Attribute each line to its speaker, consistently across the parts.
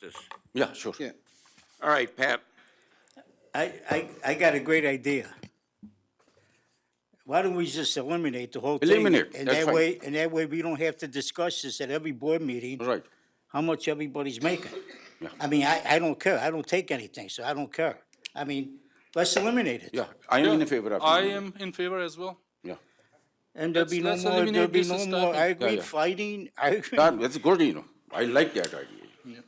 Speaker 1: this.
Speaker 2: Yeah, sure.
Speaker 3: Yeah.
Speaker 1: All right, Pat,
Speaker 4: I, I, I got a great idea. Why don't we just eliminate the whole thing?
Speaker 2: Eliminate,
Speaker 4: And
Speaker 2: that's
Speaker 4: that
Speaker 2: fine.
Speaker 4: way, and that way we don't have to discuss this at every board meeting,
Speaker 2: Right.
Speaker 4: how much everybody's making. I mean, I, I don't care, I don't take anything, so I don't care. I mean, let's eliminate it.
Speaker 2: Yeah, I am in favor of.
Speaker 5: I
Speaker 2: it.
Speaker 5: am in favor as well.
Speaker 2: Yeah.
Speaker 4: And there'll be no
Speaker 5: Let's- let's
Speaker 4: more, there'll
Speaker 5: eliminate
Speaker 4: be
Speaker 5: this
Speaker 4: no
Speaker 5: and
Speaker 4: more,
Speaker 5: start
Speaker 4: I
Speaker 5: it.
Speaker 2: Yeah,
Speaker 4: agree,
Speaker 2: yeah.
Speaker 4: fighting, I agree.
Speaker 2: That, that's good, you know. I like that idea.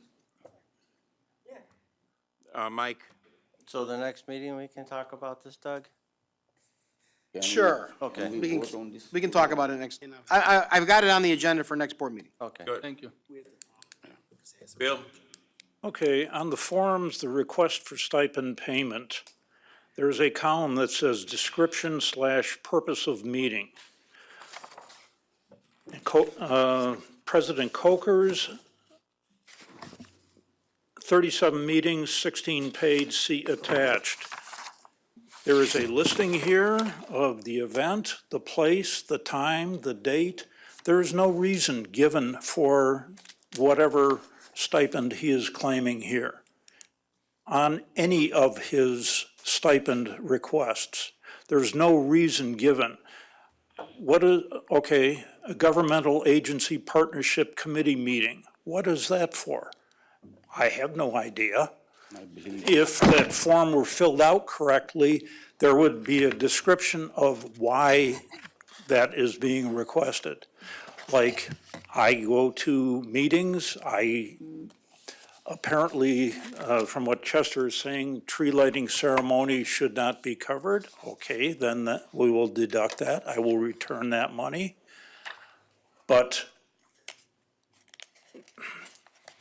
Speaker 1: uh, Mike,
Speaker 6: So the next meeting, we can talk about this, Doug?
Speaker 2: Can we-
Speaker 3: Sure.
Speaker 6: Okay.
Speaker 2: Can we
Speaker 3: We
Speaker 2: vote on
Speaker 3: can,
Speaker 2: this?
Speaker 3: we can talk about it next, I, I, I've got it on the agenda for next board meeting.
Speaker 6: Okay.
Speaker 5: Thank you.
Speaker 1: Bill,
Speaker 7: Okay, on the forms, the request for stipend payment, there's a column that says description slash purpose of meeting. Co- uh, President Coker's, 37 meetings, 16 paid, see attached. There is a listing here of the event, the place, the time, the date. There is no reason given for whatever stipend he is claiming here on any of his stipend requests. There's no reason given. What is, okay, a governmental agency partnership committee meeting, what is that for? I have no idea. If that form were filled out correctly, there would be a description of why that is being requested. Like, I go to meetings, I apparently, uh, from what Chester is saying, tree lighting ceremony should not be covered. Okay, then that- we will deduct that. I will return that money. But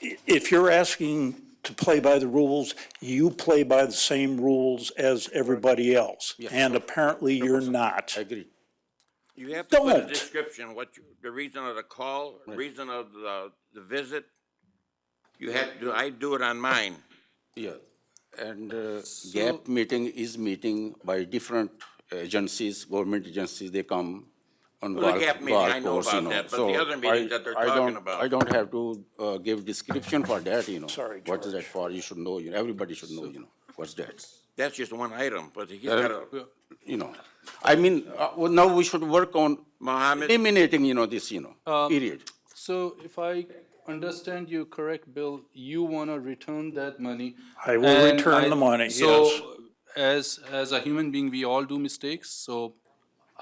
Speaker 7: i- if you're asking to play by the rules, you play by the same rules as everybody else. And apparently you're not.
Speaker 2: I agree.
Speaker 1: you have to put a
Speaker 7: Don't.
Speaker 1: description, what, you- the reason of the call, reason of the, the visit. You have to, I do it on mine.
Speaker 2: Yeah. And uh, GAP meeting is meeting by different agencies, government agencies, they come on
Speaker 1: Well, the
Speaker 2: golf-
Speaker 1: GAP meeting,
Speaker 2: golf
Speaker 1: I know
Speaker 2: course, you
Speaker 1: about that, but
Speaker 2: So
Speaker 1: the other meetings
Speaker 2: I-
Speaker 1: that they're
Speaker 2: I
Speaker 1: talking
Speaker 2: don't-
Speaker 1: about.
Speaker 2: I don't have to uh, give description for that, you know.
Speaker 7: Sorry,
Speaker 2: What is that
Speaker 7: George.
Speaker 2: for? You should know, you know, everybody should know, you know, what's that?
Speaker 1: That's just one item, but he's got a,
Speaker 2: You know, I mean, uh, well, now we should work on
Speaker 1: Mohammed,
Speaker 2: eliminating, you know, this, you know, period.
Speaker 5: So if I understand you correct, Bill, you want to return that money.
Speaker 7: I will
Speaker 5: and
Speaker 7: return
Speaker 5: I-
Speaker 7: the money, yes.
Speaker 5: So as, as a human being, we all do mistakes. So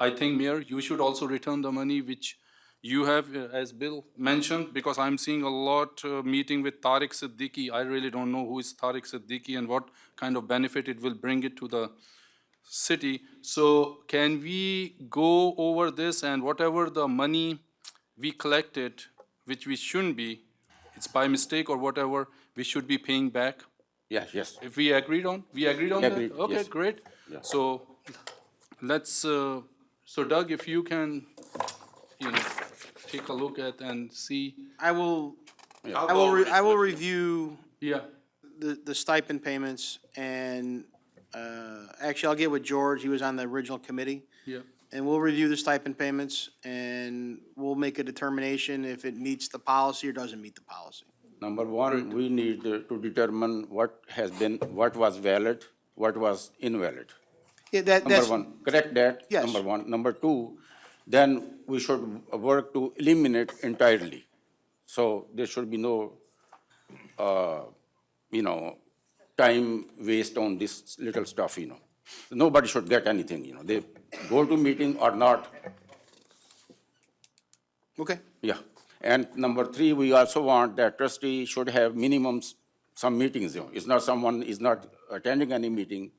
Speaker 5: I think, Mayor, you should also return the money which you have, uh, as Bill mentioned, because I'm seeing a lot, uh, meeting with Tariq Siddiqui. I really don't know who is Tariq Siddiqui and what kind of benefit it will bring it to the city. So can we go over this and whatever the money we collected, which we shouldn't be, it's by mistake or whatever, we should be paying back?
Speaker 2: Yeah, yes.
Speaker 5: If we agreed on, we agreed on that?
Speaker 2: Agreed,
Speaker 5: Okay,
Speaker 2: yes.
Speaker 5: great. So let's, uh, so Doug, if you can, you know, take a look at and see,
Speaker 3: I will,
Speaker 1: I'll
Speaker 3: I
Speaker 1: go
Speaker 3: will,
Speaker 1: over
Speaker 3: re-
Speaker 1: this
Speaker 3: I will
Speaker 1: with you.
Speaker 3: review
Speaker 5: yeah,
Speaker 3: the, the stipend payments and, uh, actually, I'll get with George, he was on the original committee.
Speaker 5: yeah.
Speaker 3: And we'll review the stipend payments and we'll make a determination if it meets the policy or doesn't meet the policy.
Speaker 2: Number one, we need uh, to determine what has been, what was valid, what was invalid.
Speaker 3: Yeah, that,
Speaker 2: Number
Speaker 3: that's,
Speaker 2: one, correct that?
Speaker 3: Yes.
Speaker 2: Number one. Number two, then we should work to eliminate entirely. So there should be no, uh, you know, time waste on this little stuff, you know. Nobody should get anything, you know. They go to meeting or not,
Speaker 3: okay.
Speaker 2: yeah. And number three, we also want that trustee should have minimums, some meetings, you know. It's not someone is not attending any meeting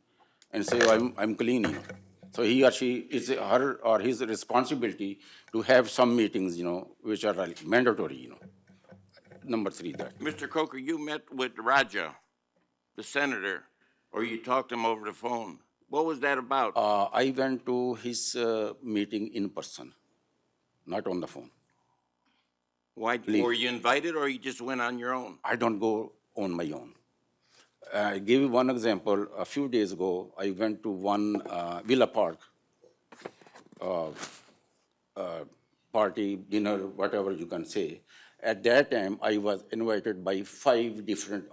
Speaker 2: and say, "Oh, I'm, I'm clean, you know. So he or she, it's her or his responsibility to have some meetings, you know, which are like mandatory, you know. Number three, that.
Speaker 1: Mr. Coker, you met with Raja, the senator, or you talked to him over the phone. What was that about?
Speaker 2: Uh, I went to his, uh, meeting in person, not on the phone.
Speaker 1: Why, were you invited or you just went on your own?
Speaker 2: I don't go on my own. I give you one example. A few days ago, I went to one uh, Villa Park uh, uh, party, dinner, whatever you can say. At that time, I was invited by five different